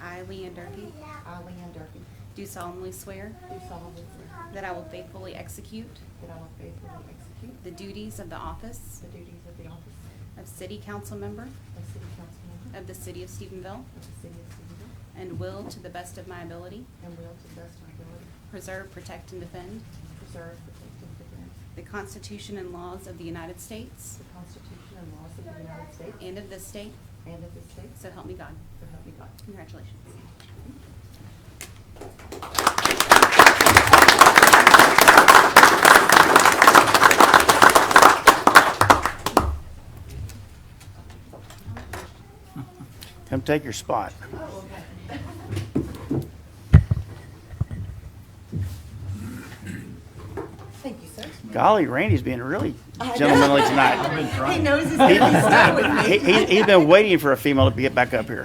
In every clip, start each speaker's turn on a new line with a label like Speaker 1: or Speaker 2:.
Speaker 1: I, Leanne Durkee,
Speaker 2: I, Leanne Durfee,
Speaker 1: do solemnly swear
Speaker 2: do solemnly swear
Speaker 1: that I will faithfully execute
Speaker 2: that I will faithfully execute
Speaker 1: the duties of the office
Speaker 2: the duties of the office
Speaker 1: of City Council Member
Speaker 2: of City Council Member
Speaker 1: of the City of Stephenville
Speaker 2: of the City of Stephenville,
Speaker 1: and will, to the best of my ability,
Speaker 2: and will to the best of my ability
Speaker 1: preserve, protect, and defend
Speaker 2: preserve, protect, and defend
Speaker 1: the Constitution and laws of the United States
Speaker 2: the Constitution and laws of the United States
Speaker 1: and of this state,
Speaker 2: and of this state,
Speaker 1: so help me God.
Speaker 2: so help me God.
Speaker 1: Congratulations.
Speaker 3: Come take your spot.
Speaker 2: Thank you, sir.
Speaker 3: Golly, Randy's being really gentlemanly tonight.
Speaker 2: He knows he's going to stay with me.
Speaker 3: He, he- he's been waiting for a female to get back up here.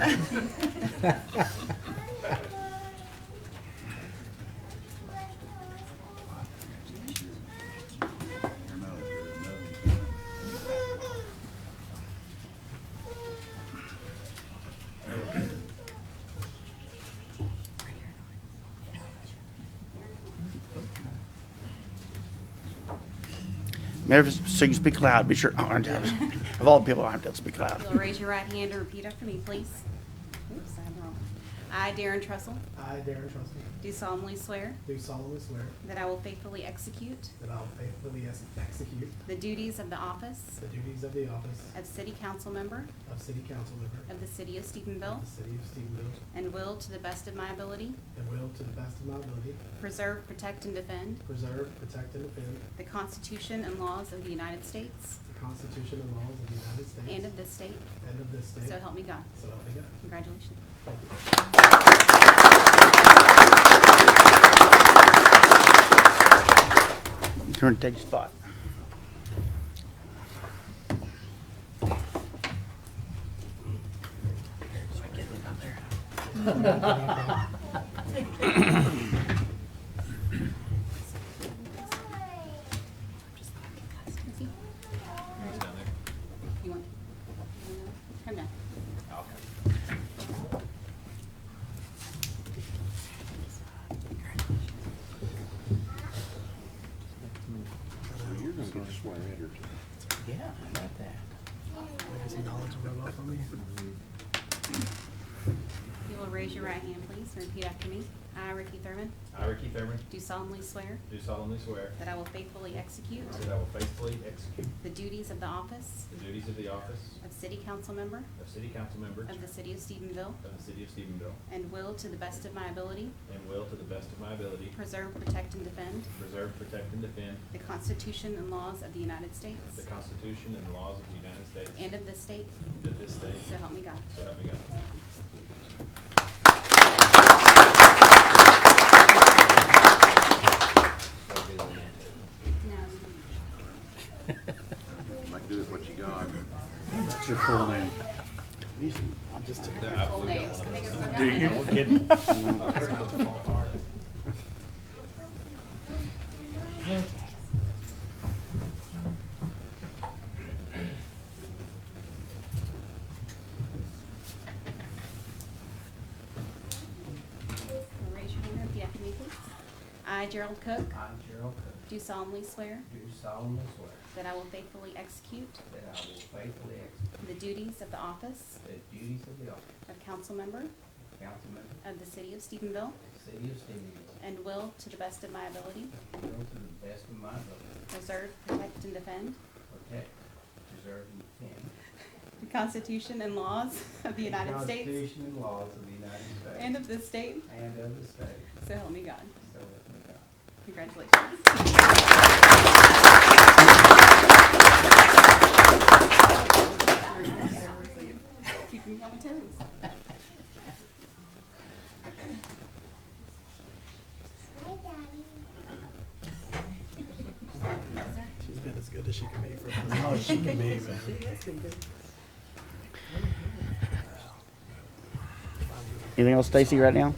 Speaker 3: Mayor, so you speak loud, be sure, I'm down. of all the people, I'm down, speak loud.
Speaker 1: You'll raise your right hand and repeat after me, please. Oops, I had the wrong. I, Darren Trussell,
Speaker 4: I, Darren Trustee,
Speaker 1: do solemnly swear
Speaker 4: do solemnly swear
Speaker 1: that I will faithfully execute
Speaker 4: that I will faithfully ex- execute
Speaker 1: the duties of the office
Speaker 4: the duties of the office
Speaker 1: of City Council Member
Speaker 4: of City Council Member
Speaker 1: of the City of Stephenville
Speaker 4: of the City of Stephenville
Speaker 1: and will, to the best of my ability,
Speaker 4: and will, to the best of my ability,
Speaker 1: preserve, protect, and defend
Speaker 4: preserve, protect, and defend
Speaker 1: the Constitution and laws of the United States
Speaker 4: the Constitution and laws of the United
Speaker 1: and
Speaker 4: States
Speaker 1: of this state,
Speaker 4: and of this state.
Speaker 1: so help me God.
Speaker 4: So help me God.
Speaker 1: Congratulations.
Speaker 4: Thank you.
Speaker 3: Turn, take your spot.
Speaker 1: Easy. You want? Come down.
Speaker 5: You're gonna get sworn in or two.
Speaker 3: Yeah, about that.
Speaker 1: You will raise your right hand, please, and repeat after me. I, Ricky Thurman,
Speaker 6: I, Ricky Thurman,
Speaker 1: do solemnly swear
Speaker 6: do solemnly swear
Speaker 1: that I will faithfully execute
Speaker 6: that I will faithfully execute
Speaker 1: the duties of the office
Speaker 6: the duties of the office
Speaker 1: of City Council Member
Speaker 6: of City Council Member
Speaker 1: of the
Speaker 6: of
Speaker 1: City of Stephenville
Speaker 6: the City of Stephenville
Speaker 1: and will, to the best of my ability,
Speaker 6: and will, to the best of my ability,
Speaker 1: preserve, protect, and defend
Speaker 6: preserve, protect, and defend
Speaker 1: the Constitution and laws of the United
Speaker 6: the
Speaker 1: States
Speaker 6: Constitution and laws of the United States
Speaker 1: and of this state,
Speaker 6: and of this state.
Speaker 1: so help me God.
Speaker 6: So help me God.
Speaker 1: Now,
Speaker 5: Like, do with what you got.
Speaker 3: What's your full name?
Speaker 1: full names. Raise your hand and repeat after me, please. I, Gerald Cook,
Speaker 7: I, Gerald Cook,
Speaker 1: do solemnly swear
Speaker 7: do solemnly swear
Speaker 1: that I will faithfully execute
Speaker 7: that I will faithfully execute
Speaker 1: the duties of the office
Speaker 7: the duties of the office
Speaker 1: of council member
Speaker 7: of council member
Speaker 1: of the City of Stephenville
Speaker 7: of the city of Stephenville,
Speaker 1: and will, to the best of my ability,
Speaker 7: and will to the best of my ability
Speaker 1: preserve, protect, and defend
Speaker 7: protect, preserve, and defend.
Speaker 1: the Constitution and laws of the United States
Speaker 7: Constitution and laws of the United States.
Speaker 1: and of this state,
Speaker 7: And of the state,
Speaker 1: so help me God.
Speaker 7: so help me God.
Speaker 1: Congratulations. Keeping you on your toes.
Speaker 4: She's been as good as she can be for us.
Speaker 3: Anything else, Stacy, right now?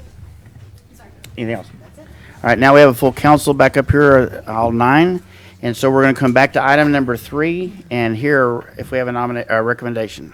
Speaker 1: Sorry.
Speaker 3: Anything else?
Speaker 1: That's it.
Speaker 3: All right, now we have a full council back up here, all nine. And so we're going to come back to item number three and hear if we have a nominate, a recommendation.